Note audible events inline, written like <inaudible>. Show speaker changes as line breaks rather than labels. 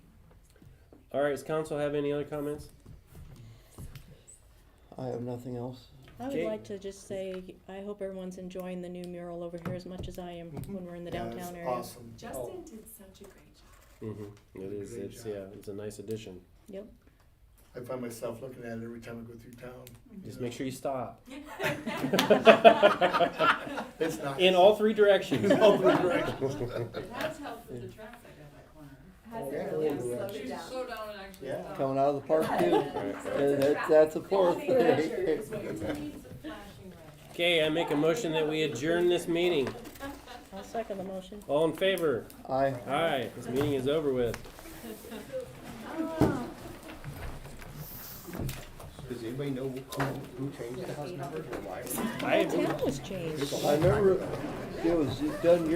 All right, does council have any other comments?
I have nothing else.
I would
Kate?
like to just say, I hope everyone's enjoying the new mural over here as much as I am when we're in the
Yeah, it's
downtown area.
Awesome.
Justin did such
<laughs>
a great job. <laughs>
Mm-hmm. It is,
Great
it's,
job.
yeah, it's a nice addition.
Yep,
I find myself looking at it every time I go through town.
Just make sure you stop.
It's not.
In all three
<laughs>
directions.
All three directions.
It has helped with the traffic on that corner.
Has
Yeah.
it really
Yeah.
slowed it
Should
down?
slow down and actually
Yeah.
stop.
Coming out of the park too.
<laughs>
Right.
Yeah, that- That's a fourth
It's a traffic
thing.
measure.
It's what you need is a flashing red.
Okay, I make a motion that we adjourn this meeting.
I'll second the motion.
All in favor?
<laughs> I.
Aye, this meeting is over with.
Does anybody know who, who changed the house number or why?
I
The town was changed.
I remember it was done